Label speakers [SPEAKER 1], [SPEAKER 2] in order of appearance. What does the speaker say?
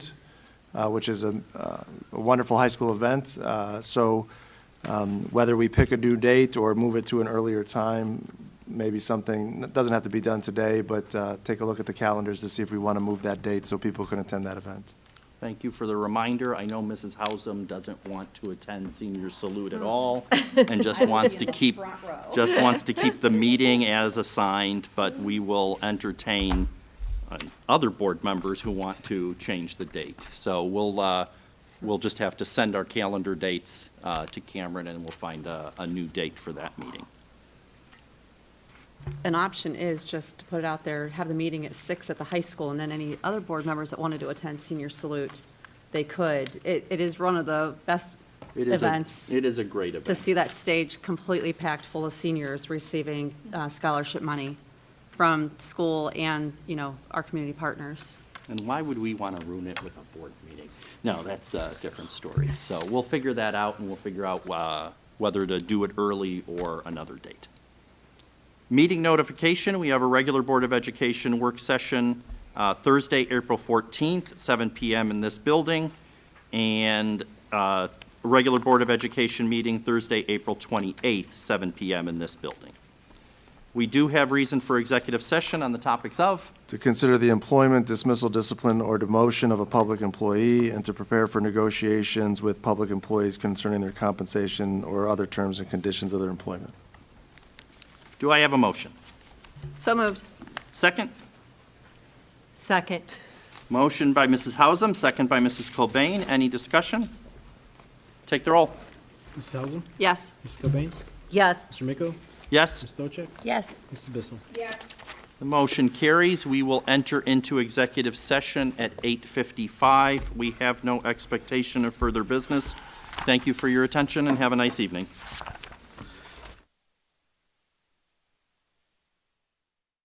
[SPEAKER 1] uh, which is a uh, a wonderful high school event. Uh, So um, whether we pick a due date or move it to an earlier time, maybe something, it doesn't have to be done today, but uh, take a look at the calendars to see if we want to move that date so people can attend that event.
[SPEAKER 2] Thank you for the reminder. I know Mrs. Hausum doesn't want to attend senior salute at all and just wants to keep, just wants to keep the meeting as assigned, but we will entertain uh, other board members who want to change the date. So we'll, uh, we'll just have to send our calendar dates uh, to Cameron and we'll find a, a new date for that meeting.
[SPEAKER 3] An option is just to put it out there, have the meeting at six at the high school, and then any other board members that wanted to attend senior salute, they could. It, it is one of the best
[SPEAKER 2] It is a-
[SPEAKER 3] events
[SPEAKER 2] It is a great event.
[SPEAKER 3] to see that stage completely packed full of seniors receiving uh, scholarship money from school and, you know, our community partners.
[SPEAKER 2] And why would we want to ruin it with a board meeting? No, that's a different story. So we'll figure that out, and we'll figure out uh, whether to do it early or another date. Meeting notification, we have a regular Board of Education work session uh, Thursday, April 14th, 7 PM in this building, and uh, regular Board of Education meeting Thursday, April 28th, 7 PM in this building. We do have reason for executive session on the topics of
[SPEAKER 1] To consider the employment, dismissal, discipline, or demotion of a public employee, and to prepare for negotiations with public employees concerning their compensation or other terms and conditions of their employment.
[SPEAKER 2] Do I have a motion?
[SPEAKER 3] So moved.
[SPEAKER 2] Second?
[SPEAKER 3] Second.
[SPEAKER 2] Motion by Mrs. Hausum, second by Mrs. Cobain. Any discussion? Take the roll.
[SPEAKER 4] Mrs. Hausum,
[SPEAKER 3] Yes.
[SPEAKER 4] Mrs. Cobain,
[SPEAKER 3] Yes.
[SPEAKER 4] Mr. Miko,
[SPEAKER 2] Yes,
[SPEAKER 4] Mrs. Stolcek,
[SPEAKER 3] Yes.
[SPEAKER 4] Mrs. Bissell.
[SPEAKER 2] the motion carries. We will enter into executive session at 8:55. We have no expectation of further business. Thank you for your attention and have a nice evening.